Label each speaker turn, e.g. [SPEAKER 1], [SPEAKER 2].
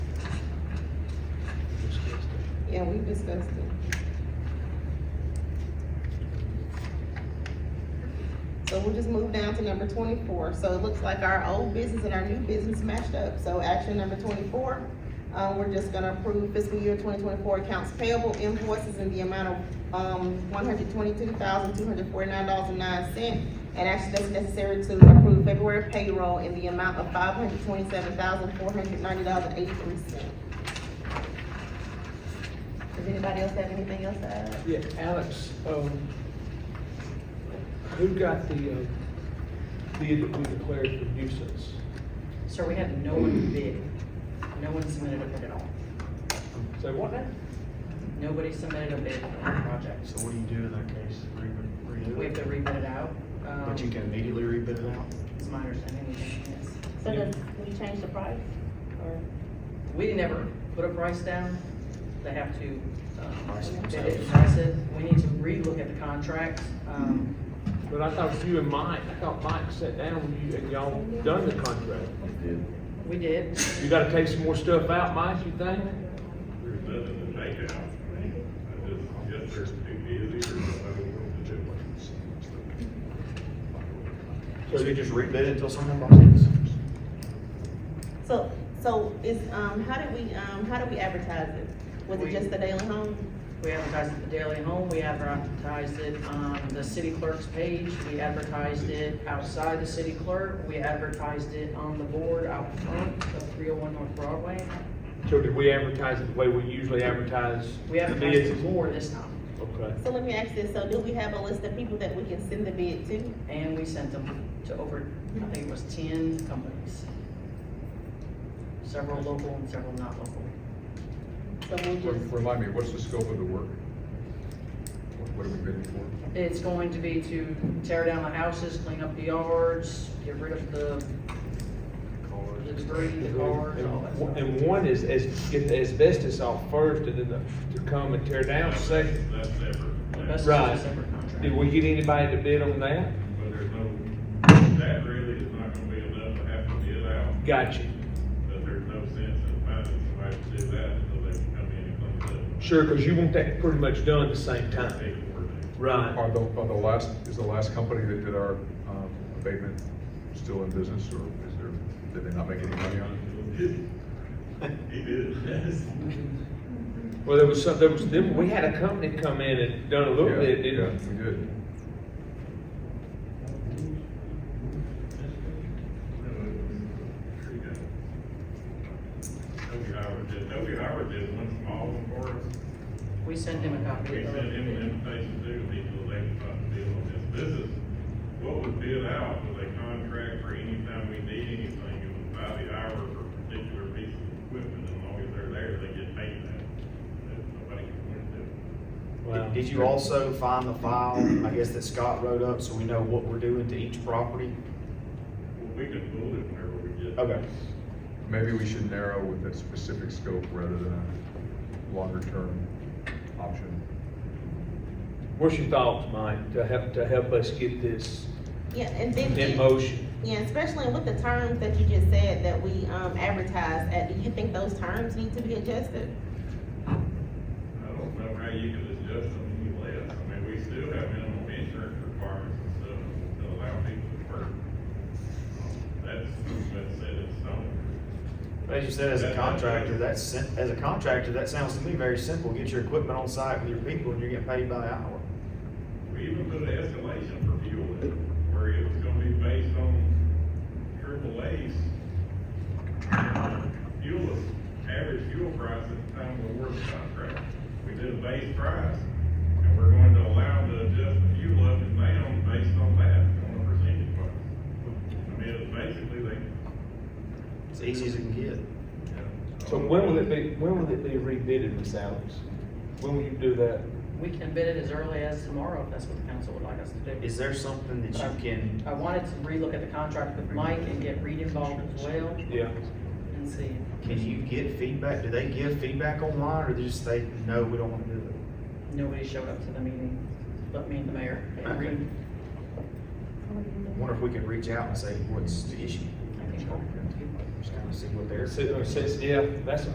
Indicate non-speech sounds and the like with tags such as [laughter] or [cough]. [SPEAKER 1] Yeah, we discussed it. So we'll just move down to number twenty-four. So it looks like our old business and our new business matched up. So action number twenty-four, uh, we're just gonna approve fiscal year twenty twenty-four accounts payable invoices in the amount of, um, one hundred twenty-two thousand, two hundred forty-nine dollars and nine cents. And actually, that's necessary to approve February payroll in the amount of five hundred twenty-seven thousand, four hundred ninety dollars and eighty-three cents. Does anybody else have anything else to add?
[SPEAKER 2] Uh,
[SPEAKER 3] Yeah, Alex, um, who got the, uh, bid that we declared for nuisance?
[SPEAKER 4] Sir, we had no one bid, no one submitted a bid at all.
[SPEAKER 3] So what now?
[SPEAKER 4] Nobody submitted a bid for our project.
[SPEAKER 5] So what do you do in that case? Re-
[SPEAKER 4] We have
[SPEAKER 5] Redo
[SPEAKER 4] to
[SPEAKER 5] it?
[SPEAKER 4] rebid it out. um,
[SPEAKER 5] But you can immediately rebid it out?
[SPEAKER 4] It's my understanding, we can, yes.
[SPEAKER 2] So does, we change the price, or?
[SPEAKER 4] We never put a price down. They have to, um,
[SPEAKER 5] Price it
[SPEAKER 4] bid it,
[SPEAKER 5] themselves.
[SPEAKER 4] price it. We need to relook at the contract. Um,
[SPEAKER 3] But I thought you and Mike, I thought Mike sat down with you and y'all done the contract.
[SPEAKER 4] we did,
[SPEAKER 3] You gotta take some more stuff out, Mike, you think?
[SPEAKER 6] There's nothing to take out. I just, yes, there's too busy or something to do.
[SPEAKER 5] So you just rebid it until someone buys it?
[SPEAKER 1] So, so is, um, how did we, um, how did we advertise it? Was it
[SPEAKER 4] We-
[SPEAKER 1] just the Daily Home?
[SPEAKER 4] we advertised it at the Daily Home, we advertised it on the city clerk's page, we advertised it outside the city clerk, we advertised it on the board out front of three oh one North Broadway.
[SPEAKER 3] So did we advertise it the way we usually advertise?
[SPEAKER 4] We advertised
[SPEAKER 3] bids?
[SPEAKER 4] it more this time,
[SPEAKER 3] Okay.
[SPEAKER 1] So let me ask this, so do we have a list of people that we can send the bid to?
[SPEAKER 4] and we sent them to over, I think it was ten companies. Several local and several not local.
[SPEAKER 1] So we'll just,
[SPEAKER 7] Remind me, what's the scope of the work? What- What are we bidding for?
[SPEAKER 4] It's going to be to tear down the houses, clean up the yards, get rid of the, the debris, the cars, all that
[SPEAKER 3] And
[SPEAKER 4] stuff.
[SPEAKER 3] and one is, is get the asbestos off first and then the- to come and tear down second.
[SPEAKER 6] That's ever,
[SPEAKER 4] That's
[SPEAKER 6] but
[SPEAKER 4] just
[SPEAKER 3] Right.
[SPEAKER 4] a separate contract.
[SPEAKER 3] Did we get anybody to bid on that?
[SPEAKER 6] there's no, that really is not gonna be enough to have to bid out,
[SPEAKER 3] Gotcha.
[SPEAKER 6] but there's no sense in finding somebody to do that until they can come in and clean it up.
[SPEAKER 3] Sure, because you want that pretty much done at the same time.
[SPEAKER 6] Take it where they-
[SPEAKER 3] Right.
[SPEAKER 7] Are the, are the last, is the last company that did our um, abatement still in business, or is there, did they not make any money on it?
[SPEAKER 6] He did, [laughs] yes.
[SPEAKER 3] Well, there was some, there was, then we had a company come in and done a little
[SPEAKER 7] Yeah,
[SPEAKER 3] bit,
[SPEAKER 7] Yeah,
[SPEAKER 3] didn't we?
[SPEAKER 7] we did.
[SPEAKER 6] Toby Howard did, Toby Howard did one small one for us.
[SPEAKER 4] We sent him a copy
[SPEAKER 6] We
[SPEAKER 4] of
[SPEAKER 6] sent him an
[SPEAKER 4] the,
[SPEAKER 6] invitation too, and he was like, "Fuck, deal on this. This is, what was bid out was a contract for any time we need anything, it was by the hour for a particular piece of equipment, as long as they're there, they get paid that. That Nobody can win it.
[SPEAKER 3] Wow.
[SPEAKER 5] Did you also find the file, I guess, that Scott wrote up, so we know what we're doing to each property?
[SPEAKER 6] Well, we can pull it whenever we get.
[SPEAKER 5] Okay.
[SPEAKER 7] Maybe we should narrow with that specific scope rather than a longer-term option.
[SPEAKER 3] What's your thoughts, Mike, to help, to help us get this
[SPEAKER 1] yeah, and then.
[SPEAKER 3] in motion?
[SPEAKER 1] Yeah, especially with the terms that you just said that we, um, advertised at, do you think those terms need to be adjusted?
[SPEAKER 6] I don't know how you can adjust them any less, I mean, we still have minimum insurance requirements and stuff to allow people to work. Um, That's, that's set in stone.
[SPEAKER 5] As you said, as a contractor, that's, sim- as a contractor, that sounds to me very simple. Get your equipment on site with your people and you're getting paid by the hour.
[SPEAKER 6] We even put an escalation for fuel in, where it was gonna be based on triple A's. Fuel, average fuel price at the time of the work contract. We did a base price, and we're going to allow to adjust the fuel up and down based on that, on a percentage basis. I mean, it's basically like.
[SPEAKER 5] It's easy as it can get.
[SPEAKER 6] you know,
[SPEAKER 3] So when will it be, when will it be rebid, Ms. Alex? When will you do that?
[SPEAKER 4] we can bid it as early as tomorrow, if that's what the council would like us to do.
[SPEAKER 5] Is there something that you can,
[SPEAKER 4] I wanted to relook at the contract with Mike and get Reed involved as well
[SPEAKER 3] Yeah.
[SPEAKER 4] and see.
[SPEAKER 5] can you get feedback? Do they give feedback online or they just say, no, we don't want to do it?
[SPEAKER 4] Nobody showed up to the meeting, but me and the mayor and Reed.
[SPEAKER 5] I Wonder if we could reach out and say, what's the issue?
[SPEAKER 4] I think we're good.
[SPEAKER 5] Just kind of see what they're.
[SPEAKER 3] Since- since- yeah, that's